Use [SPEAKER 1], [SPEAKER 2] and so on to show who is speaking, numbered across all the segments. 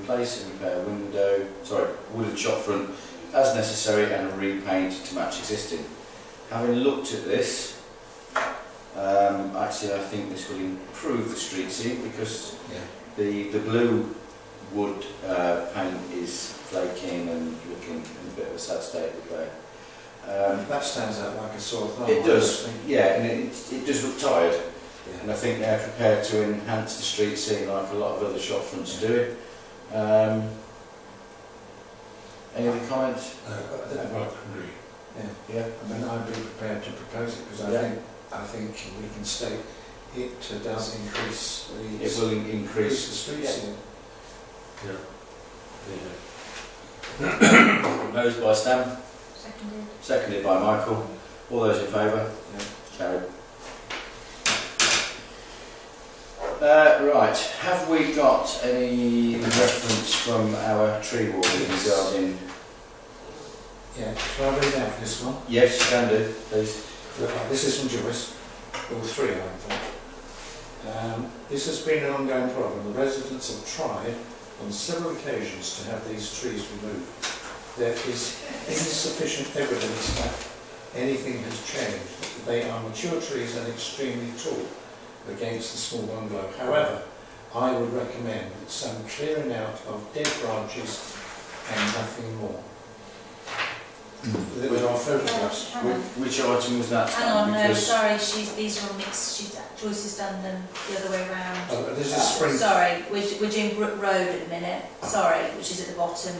[SPEAKER 1] replace and repair window, sorry, wooden shop front as necessary and repaint to match existing. Having looked at this, um, actually I think this will improve the street scene because
[SPEAKER 2] Yeah.
[SPEAKER 1] the, the blue wood uh, paint is flaking and looking in a bit of a sad state of repair. Um,
[SPEAKER 2] That stands out like a sore thumb.
[SPEAKER 1] it does,
[SPEAKER 2] honestly.
[SPEAKER 1] yeah, and it, it does look tired.
[SPEAKER 2] Yeah.
[SPEAKER 1] And I think they're prepared to enhance the street scene like a lot of other shop fronts do. Um, any other comments?
[SPEAKER 2] Uh, but I-
[SPEAKER 1] Yeah.
[SPEAKER 2] I mean, I'd be prepared to propose it because I
[SPEAKER 1] Yeah.
[SPEAKER 2] think, I think we can state it uh, does increase the.
[SPEAKER 1] It will in-
[SPEAKER 2] Increase the
[SPEAKER 1] increase.
[SPEAKER 2] street
[SPEAKER 1] Yeah.
[SPEAKER 2] scene.
[SPEAKER 1] Proposed by Stan,
[SPEAKER 3] Seconded.
[SPEAKER 1] seconded by Michael. All those in favour?
[SPEAKER 2] Yeah.
[SPEAKER 1] Carried. Uh, right, have we got any reference from our tree warden
[SPEAKER 2] Yes.
[SPEAKER 1] regarding...
[SPEAKER 2] Yeah, shall I read out this one?
[SPEAKER 1] Yes, you can do, please.
[SPEAKER 2] This is from Joyce, all three, I think. Um, this has been an ongoing problem. The residents have tried on several occasions to have these trees removed. There is insufficient evidence that anything has changed. They are mature trees and extremely tall against the small bungalow. However, I would recommend some clearing out of dead branches and nothing more. There are photographs.
[SPEAKER 3] Hang on.
[SPEAKER 1] Whi- Which item was that,
[SPEAKER 3] Hang on,
[SPEAKER 1] Stan?
[SPEAKER 3] no,
[SPEAKER 1] Because
[SPEAKER 3] sorry, she's, these are all mixed, she's, Joyce has done them the other way round.
[SPEAKER 2] Oh, this is spring.
[SPEAKER 3] Sorry, we're, we're doing Brook Road at the minute, sorry, which is at the bottom.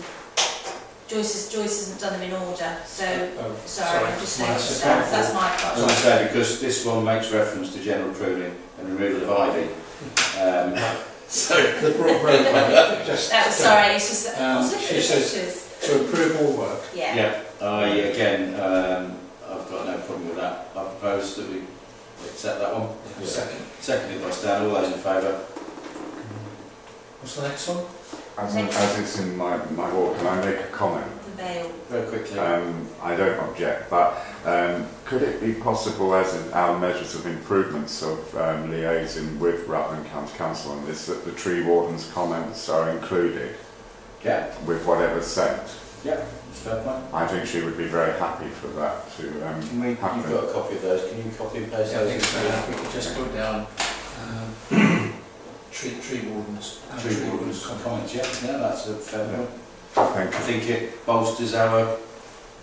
[SPEAKER 3] Joyce has, Joyce hasn't done them in order, so,
[SPEAKER 2] Oh,
[SPEAKER 3] sorry, I'm just
[SPEAKER 2] my
[SPEAKER 3] noticed
[SPEAKER 2] second
[SPEAKER 3] that, that's my
[SPEAKER 1] I was
[SPEAKER 3] fault.
[SPEAKER 1] going to say, because this one makes reference to general pruning and removal of ivy. Um, so,
[SPEAKER 2] The broad roadway, just.
[SPEAKER 3] That was, sorry, it's just, I was
[SPEAKER 2] Um,
[SPEAKER 3] looking
[SPEAKER 2] she
[SPEAKER 3] at the
[SPEAKER 2] says-
[SPEAKER 3] pictures.
[SPEAKER 2] To approve all work,
[SPEAKER 3] Yeah,
[SPEAKER 1] yeah, I, again, um, I've got no problem with that. I propose that we accept that one.
[SPEAKER 2] second.
[SPEAKER 1] Seconded by Stan, all those in favour?
[SPEAKER 2] What's the next one?
[SPEAKER 4] As, as it's in my, my walk, can I make a comment?
[SPEAKER 3] the veil,
[SPEAKER 1] Very quickly.
[SPEAKER 4] Um, I don't object, but um, could it be possible, as in our measures of improvements of um, liaising with Rutland County Council on this, that the tree warden's comments are included
[SPEAKER 1] Yeah,
[SPEAKER 4] with whatever's sent?
[SPEAKER 1] that's a fair point.
[SPEAKER 4] I think she would be very happy for that to. Um,
[SPEAKER 1] Can we, you've
[SPEAKER 4] Happy.
[SPEAKER 1] got a copy of those, can you copy and paste
[SPEAKER 2] Yeah, I think
[SPEAKER 1] those?
[SPEAKER 2] so. we could just put down, um, tree, tree wardens. uh,
[SPEAKER 1] Tree wardens
[SPEAKER 2] comment.
[SPEAKER 1] comments, yeah, no, that's a fair point.
[SPEAKER 4] thank
[SPEAKER 1] I
[SPEAKER 4] you.
[SPEAKER 1] think it bolsters our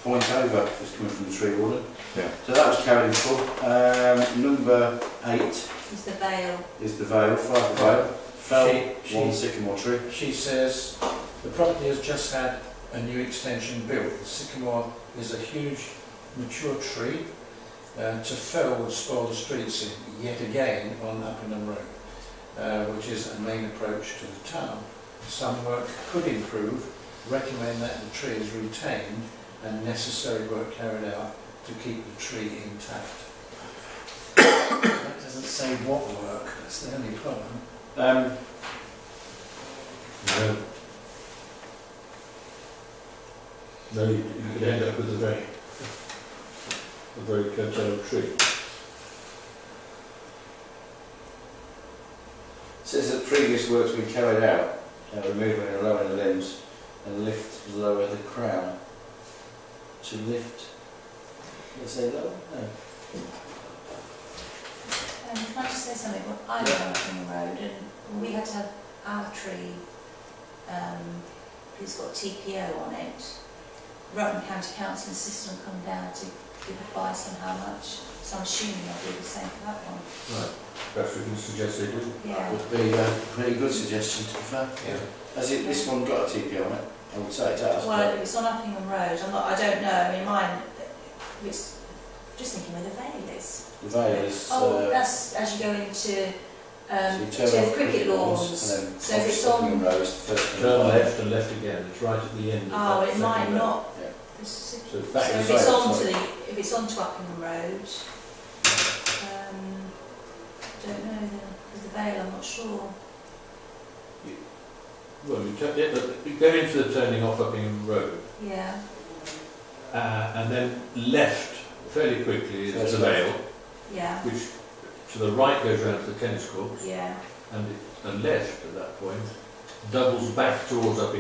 [SPEAKER 1] point over, that's coming from the tree warden.
[SPEAKER 4] Yeah.
[SPEAKER 1] So that was carried in full. Um, number eight.
[SPEAKER 3] is the veil,
[SPEAKER 1] is the veil, five the veil, fell
[SPEAKER 2] She-
[SPEAKER 1] one
[SPEAKER 2] she-
[SPEAKER 1] sycamore tree.
[SPEAKER 2] She says, the property has just had a new extension built. The sycamore is a huge mature tree. Uh, to fell would spoil the streets yet again on Uppingham Road, uh, which is a main approach to the town. Some work could improve, recommend that the tree is retained and necessary work carried out to keep the tree intact. That doesn't say what work, that's the only problem.
[SPEAKER 1] Um,
[SPEAKER 5] No. No, you you could end up with a very, a very cut out tree.
[SPEAKER 1] says that previous works we carried out, uh, removing and lowering the limbs, and lift lower the crown. To lift, did I say lower? No.
[SPEAKER 3] um, can I just say something, well, I live on Uppingham Road and we had to have our tree, um, it's got TPO on it. Rutland County Council insisted on coming down to give advice on how much, so I'm assuming I'll do the same for that one,
[SPEAKER 5] Right. Perhaps we can suggest they do.
[SPEAKER 1] That
[SPEAKER 3] yeah.
[SPEAKER 1] would be a pretty good suggestion to be fair.
[SPEAKER 2] Yeah.
[SPEAKER 1] Has it, this one got a TP on it? I would say it has,
[SPEAKER 3] Well,
[SPEAKER 1] but
[SPEAKER 3] it was on Uppingham Road, I'm not, I don't know, I mean, mine, it's, just thinking where the veil is.
[SPEAKER 1] the veil is,
[SPEAKER 3] Oh,
[SPEAKER 1] uh,
[SPEAKER 3] that's as you go into,
[SPEAKER 1] so
[SPEAKER 3] um,
[SPEAKER 1] you turn
[SPEAKER 3] to
[SPEAKER 1] off
[SPEAKER 3] cricket lawns.
[SPEAKER 1] and
[SPEAKER 3] So
[SPEAKER 1] then
[SPEAKER 3] if
[SPEAKER 1] off
[SPEAKER 3] it's
[SPEAKER 1] Stockingham
[SPEAKER 3] on-
[SPEAKER 1] Road is the first
[SPEAKER 5] Turn
[SPEAKER 1] one.
[SPEAKER 5] left and left again, it's right at the end of
[SPEAKER 3] Oh,
[SPEAKER 5] that
[SPEAKER 3] it
[SPEAKER 5] second
[SPEAKER 3] might
[SPEAKER 5] row.
[SPEAKER 3] not,
[SPEAKER 1] Yeah.
[SPEAKER 3] so
[SPEAKER 5] So
[SPEAKER 3] so
[SPEAKER 1] Back
[SPEAKER 5] that
[SPEAKER 1] to
[SPEAKER 3] if
[SPEAKER 1] the
[SPEAKER 5] is,
[SPEAKER 3] it's
[SPEAKER 1] veil,
[SPEAKER 3] on to
[SPEAKER 1] sorry.
[SPEAKER 3] the, if it's on to Uppingham Road, um, don't know then, with the veil, I'm not sure.
[SPEAKER 5] well, you turn, yeah, but you go into the turning off Uppingham Road,
[SPEAKER 3] Yeah,
[SPEAKER 5] uh, and then left fairly quickly is
[SPEAKER 1] First
[SPEAKER 5] the
[SPEAKER 1] left.
[SPEAKER 5] rail,
[SPEAKER 3] yeah,
[SPEAKER 5] which to the right goes round to the tennis court,
[SPEAKER 3] yeah,
[SPEAKER 5] and, it, and left at that point
[SPEAKER 2] doubles back towards up